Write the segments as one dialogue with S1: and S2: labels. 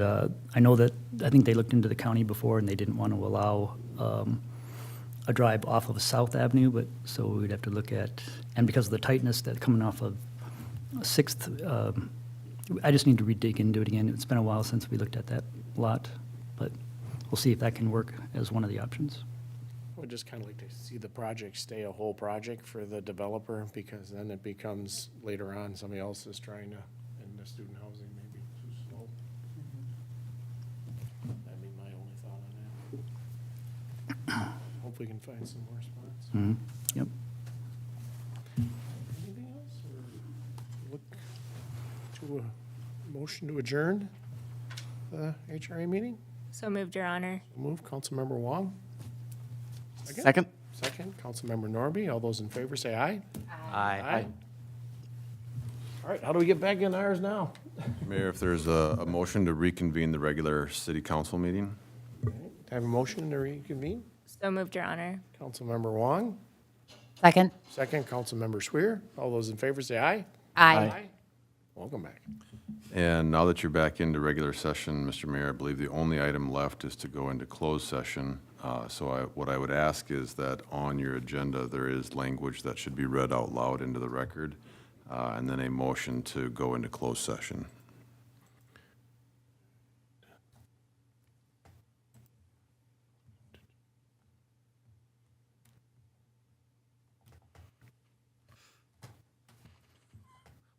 S1: Uh, I know that, I think they looked into the county before, and they didn't want to allow um, a drive off of South Avenue, but, so we'd have to look at, and because of the tightness that coming off of Sixth, um, I just need to redig and do it again. It's been a while since we looked at that lot, but we'll see if that can work as one of the options.
S2: Would just kind of like to see the project stay a whole project for the developer, because then it becomes later on, somebody else is trying to, in the student housing, maybe too slow. That'd be my only thought on that. Hope we can find some more spots.
S1: Mhm. Yep.
S2: Anything else, or look to a motion to adjourn the HRA meeting?
S3: So moved, Your Honor.
S2: Move, Councilmember Wong,
S4: Second?
S2: second, Councilmember Norby, all those in favor say aye.
S4: Aye.
S2: All right, how do we get back in ours now?
S5: Mayor, if there's a, a motion to reconvene the regular city council meeting?
S2: I Have a motion to reconvene?
S3: So moved, Your Honor.
S2: Councilmember Wong,
S6: Second?
S2: second, Councilmember Swear. All those in favor say aye.
S6: Aye.
S2: Welcome back.
S5: And now that you're back into regular session, Mr. Mayor, I believe the only item left is to go into closed session. Uh, so I, what I would ask is that on your agenda, there is language that should be read out loud into the record, uh, and then a motion to go into closed session.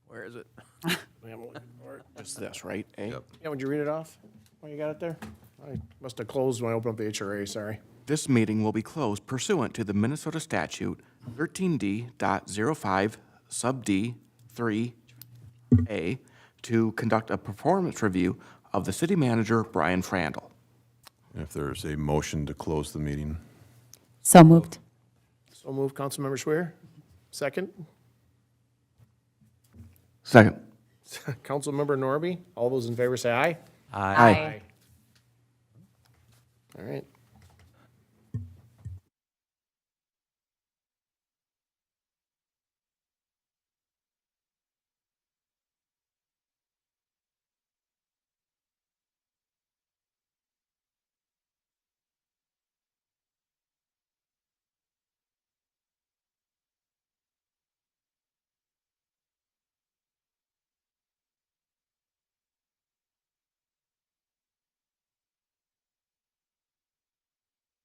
S4: Where is it?
S2: We haven't looked for it. Just this, right? eh?
S5: Yep.
S2: Yeah, would you read it off? Oh, you got it there? I must have closed when I opened up the HRA, sorry.
S4: This meeting will be closed pursuant to the Minnesota statute 13D.05 sub D three A to conduct a performance review of the city manager, Brian Frandl.
S5: If there's a motion to close the meeting?
S6: So moved.
S2: So move, Councilmember Swear. Second,
S4: Second.
S2: Councilmember Norby. All those in favor say aye.
S4: Aye.
S2: All right.